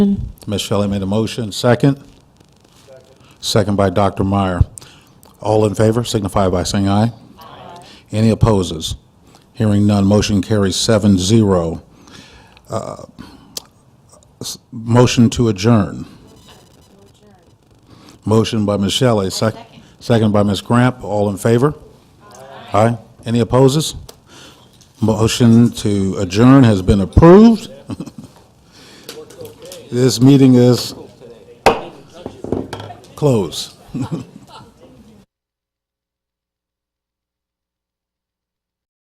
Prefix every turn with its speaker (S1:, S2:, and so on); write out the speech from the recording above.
S1: Ms. Shelley made a motion, second. Second by Dr. Meyer. All in favor signify by saying aye. Aye. Any opposes? Hearing none, motion carries seven zero. Uh, Motion to adjourn. Motion by Ms. Shelley, sec- second by Ms. Gramp. All in favor? Aye. Any opposes? Motion to adjourn has been approved. This meeting is closed.